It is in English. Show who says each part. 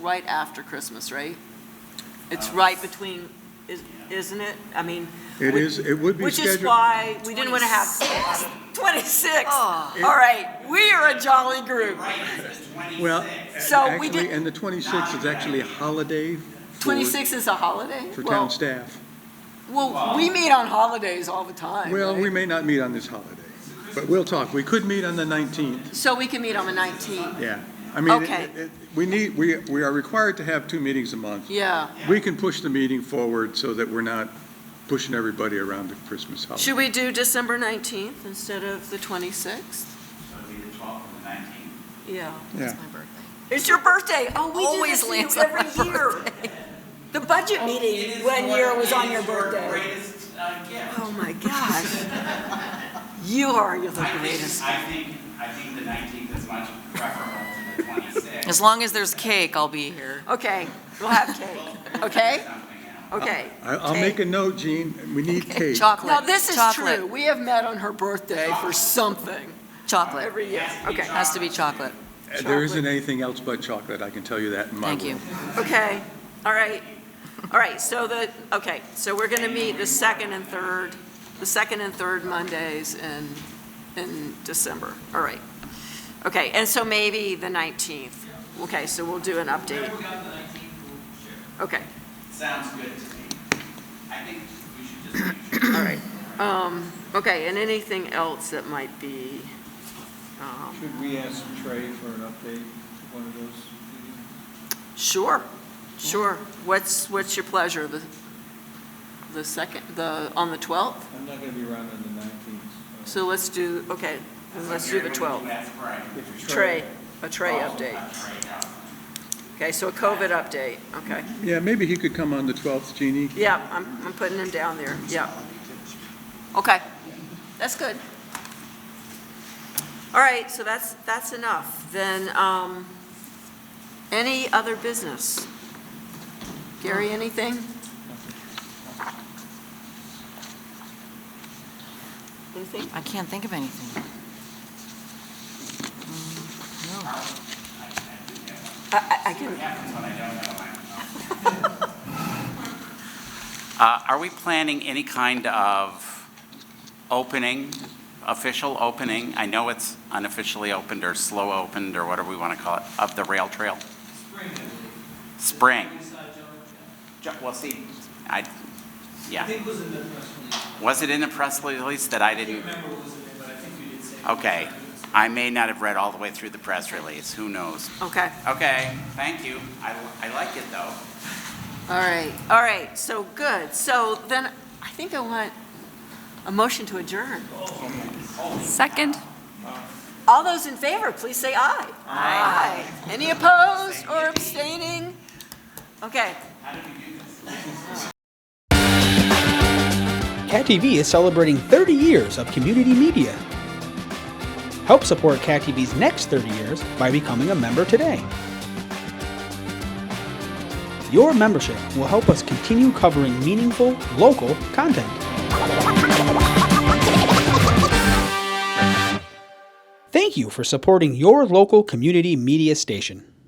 Speaker 1: right after Christmas, right? It's right between, is- isn't it? I mean,
Speaker 2: Uh, It is, it would be
Speaker 1: which
Speaker 2: scheduled.
Speaker 1: is why we didn't want to have 26. All right, we are a jolly group.
Speaker 2: Well,
Speaker 1: So we
Speaker 2: actually,
Speaker 1: did-
Speaker 2: and the 26th is actually a holiday for,
Speaker 1: 26 is a holiday?
Speaker 2: for
Speaker 1: Well,
Speaker 2: town staff.
Speaker 1: Well, we meet on holidays all the time,
Speaker 2: Well,
Speaker 1: right?
Speaker 2: we may not meet on this holiday, but we'll talk. We could meet on the 19th,
Speaker 1: So we can meet on the 19th.
Speaker 2: yeah. I mean,
Speaker 1: Okay.
Speaker 2: it- it- we need, we, we are required to have two meetings a month.
Speaker 1: Yeah.
Speaker 2: We can push the meeting forward so that we're not pushing everybody around the Christmas holiday.
Speaker 1: Should we do December 19th instead of the 26th?
Speaker 3: So it'd be the 12th and the 19th.
Speaker 1: Yeah.
Speaker 2: Yeah.
Speaker 4: my birthday.
Speaker 1: It's your birthday. Oh, we do
Speaker 4: Always
Speaker 1: this to
Speaker 4: lands
Speaker 1: you
Speaker 4: on my
Speaker 1: every year. The budget meeting one year was on your birthday.
Speaker 3: Greatest uh, gift.
Speaker 1: Oh, my gosh. You are the
Speaker 3: I
Speaker 1: greatest.
Speaker 3: think, I think, I think the 19th is much preferable to the 26th.
Speaker 4: As long as there's cake, I'll be here.
Speaker 1: Okay, we'll have cake, okay?
Speaker 3: Something else.
Speaker 1: Okay.
Speaker 2: I- I'll make a note, Jean, we need cake.
Speaker 4: Chocolate.
Speaker 1: Now, this is
Speaker 4: Chocolate.
Speaker 1: true. We have met on her birthday for something
Speaker 4: Chocolate.
Speaker 1: every year. Okay,
Speaker 4: Has to be chocolate.
Speaker 2: There isn't anything else but chocolate, I can tell you that in my
Speaker 4: Thank you.
Speaker 2: world.
Speaker 1: okay, all right. All right, so the, okay, so we're going to meet the second and third, the second and third Mondays in, in December. All right. Okay, and so maybe the 19th. Okay, so we'll do an update.
Speaker 3: Whatever we got the 19th, we'll share.
Speaker 1: Okay,
Speaker 3: Sounds good to me. I think we should just make sure.
Speaker 1: all right. Um, Okay, and anything else that might be, um,
Speaker 5: Should we ask Trey for an update, one of those meetings?
Speaker 1: Sure, sure. What's, what's your pleasure? The, the second, the, on the 12th?
Speaker 5: I'm not going to be around on the 19th.
Speaker 1: So let's do, okay, then let's do the 12th.
Speaker 3: That's right.
Speaker 5: If
Speaker 1: Trey, a Trey update. Okay, so a COVID update, okay.
Speaker 2: Yeah, maybe he could come on the 12th, Jeannie.
Speaker 1: Yeah, I'm, I'm putting him down there, yeah. Okay, that's good. All right, so that's, that's enough. Then, um, any other business? Gary, anything? Anything?
Speaker 4: I can't think of anything. Mm,
Speaker 1: I, I can,
Speaker 3: Uh, Are we planning any kind of opening, official opening? I know it's unofficially opened or slow opened or whatever we want to call it, of the rail trail? Spring. Ju- Well, see, I, yeah. I think it was in the press release. Was it in the press release that I didn't? Okay. I may not have read all the way through the press release. Who knows?
Speaker 1: okay,
Speaker 3: Okay, thank you. I, I like it, though.
Speaker 1: all right, all right, so good. So then, I think I want a motion to adjourn.
Speaker 6: Second.
Speaker 1: All those in favor, please say aye. Aye. Any opposed or abstaining? Okay.
Speaker 7: Cat TV is celebrating 30 years of community media. Help support Cat TV's next 30 years by becoming a member today. Your membership will help us continue covering meaningful, local content. Thank you for supporting your local community media station.